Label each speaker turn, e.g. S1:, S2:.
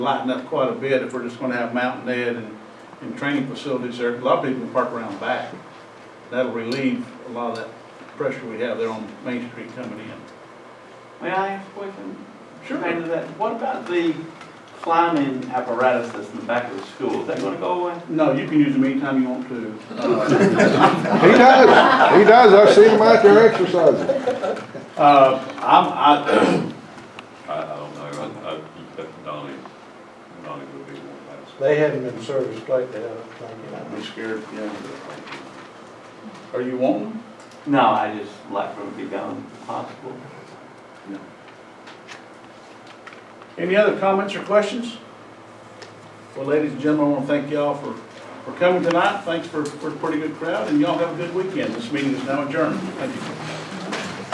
S1: lighten up quite a bit if we're just gonna have Mountain Ed and, and training facilities there. A lot of people can park around back. That'll relieve a lot of that pressure we have there on Main Street coming in.
S2: May I ask a question? Related to that, what about the climbing apparatus that's in the back of the school? Is that gonna go away?
S1: No, you can use them anytime you want to.
S3: He does. He does. I've seen him out there exercising.
S1: Uh, I'm, I,
S4: I, I don't know, I, I, but Donnie, Donnie would be one that's.
S5: They haven't been serviced lately, I don't think.
S1: I'm scared, yeah. Are you wanting? them?
S2: No, I just like for it to be gone if possible.
S1: Any other comments or questions? Well, ladies and gentlemen, I wanna thank y'all for, for coming tonight. Thanks for, for a pretty good crowd, and y'all have a good weekend. This meeting is now adjourned. Thank you.